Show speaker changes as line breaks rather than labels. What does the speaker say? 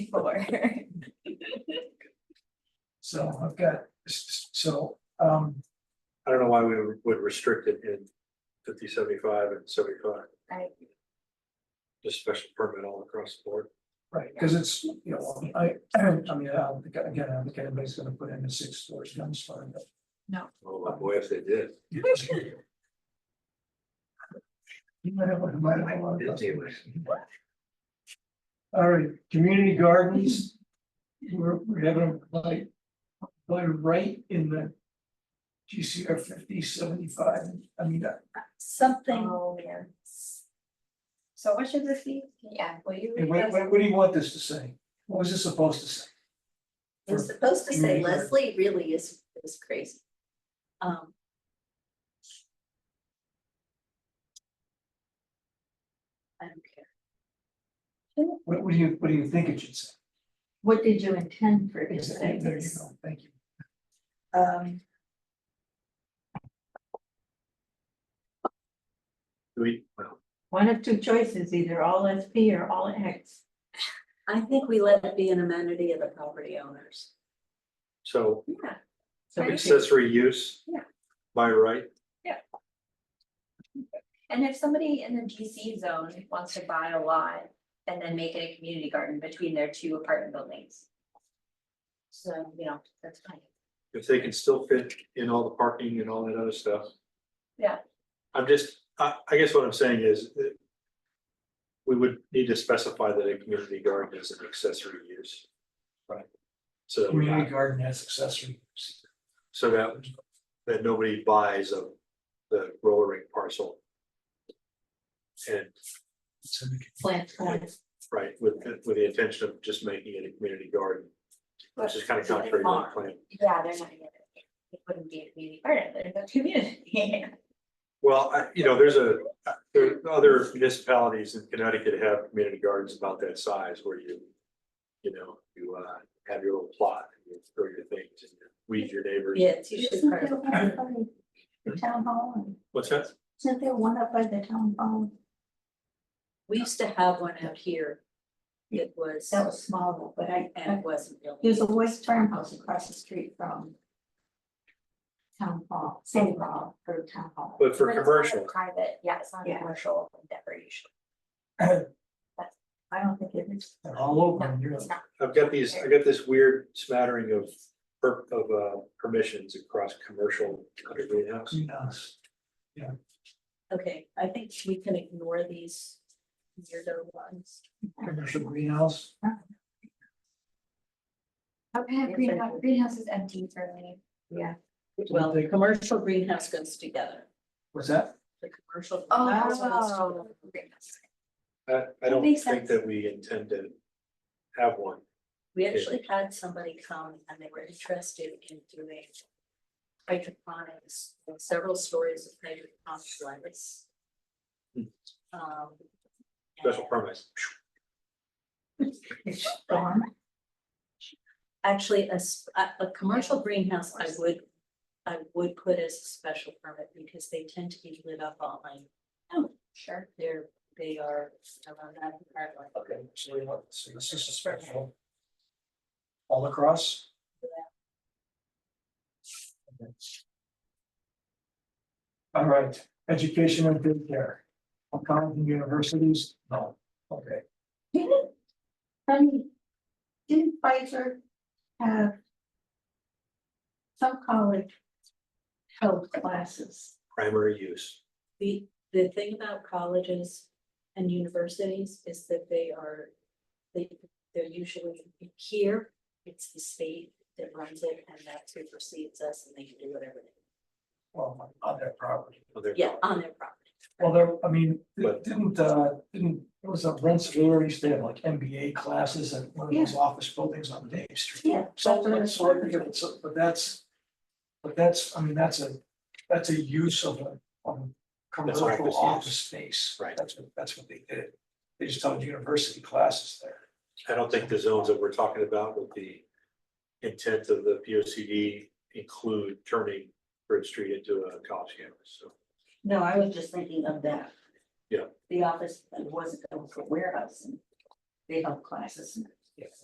before.
So I've got, s- s- so, um,
I don't know why we would restrict it in fifty, seventy-five and seventy-five,
I,
just special permit all across the board.
right, because it's, you know, I, I mean, I don't think, again, I don't think anybody's gonna put in a six storage gun store. but-
Oh, boy, if they did.
You might have, you might have a lot of customers. All right, community gardens. We're, we're having like, like right in the GCR fifty seventy-five, I mean, uh,
something,
oh, yeah,
so what should this be?
yeah, will you?
and what, what, what do you want this to say? What was this supposed to say?
It was supposed to say
Community garden.
Leslie really is, is crazy. Um, I don't care.
What, what do you, what do you think it should say?
What did you intend for it to say?
There you go, thank you.
Um,
We, well,
One of two choices, either all SP or all X.
I think we let it be an amenity of the property owners.
so
Yeah,
So
Right.
accessory use.
Yeah.
By right,
and if somebody in the GC zone wants to buy a lot and then make it a community garden between their two apartment buildings. So, you know, that's fine.
if they can still fit in all the parking and all that other stuff.
Yeah.
I'm just, I, I guess what I'm saying is that we would need to specify that a community garden is an accessory use. Right. So that we
Community garden has accessory. use.
So that, that nobody buys of the roller rink parcel. And,
So we can-
plant
Uh,
forms.
right, with, with the intention of just making it a community garden, which is kind of
But-
contrary to the plan.
Yeah, they're not gonna, it wouldn't be a community garden, they're the community.
Well, I, you know, there's a, there are other municipalities in Connecticut have community gardens about that size where you. You know, you uh, have your little plot, and you throw your things and you weed your neighbors.
Yeah, it's usually part of.
The town hall, and
What's that?
isn't there one up by the town hall?
We used to have one out here. It was,
That was small, but I,
and
I-
it wasn't really,
there's a West Farmhouse across the street from town hall, City Hall, or town hall.
But for
But it's not a
commercial,
Private, yeah, it's not a
Yeah.
commercial endeavor usually.
I don't think it is.
They're all over in
No,
Europe.
it's not.
I've got these, I got this weird smattering of, per- of uh, permissions across commercial under greenhouse.
Between us.
okay, I think we can ignore these weirdo ones.
Commercial greenhouse,
How can a greenhouse, greenhouse is empty for me?
Well, the commercial greenhouse goes together,
what's that?
the commercial.
Oh.
greenhouse goes together.
Greenhouse.
I, I don't
makes
think
sense.
that we intend to have one.
We actually had somebody come and they were interested in doing hydroponics, several stories of hydroponics. lettuce.
Hmm.
Um.
Special
and
permit.
It's storm.
Actually, a, s- a- a commercial greenhouse, I would, I would put as a special permit because they tend to be lit up all night.
Sure.
They're, they are around that part like.
Okay, so we want, so this is a special. All across? Okay. All right, education and daycare. All kinds of universities, no, okay.
Didn't, um, didn't Pfizer have some college held classes?
primary use.
The, the thing about colleges and universities is that they are, they, they're usually here. It's the state that runs it and that supersedes us and they can do whatever they,
Well, on their property.
of their
yeah, on their property.
Well, there, I mean,
But-
didn't, uh, didn't, it was a Rensselaer, used to have like MBA classes at one of those office buildings on Dave Street.
Yeah.
So, so, I think it was- but that's, but that's, I mean, that's a, that's a use of a, of a
That's office
commercial
use.
office space.
Right.
That's what, that's what they did. They just held university classes there.
I don't think the zones that we're talking about with the intent of the P O C D include turning Bridge Street into a college campus, so.
No, I was just thinking of that.
Yeah.
The office that was a warehouse and they held classes and
Yes.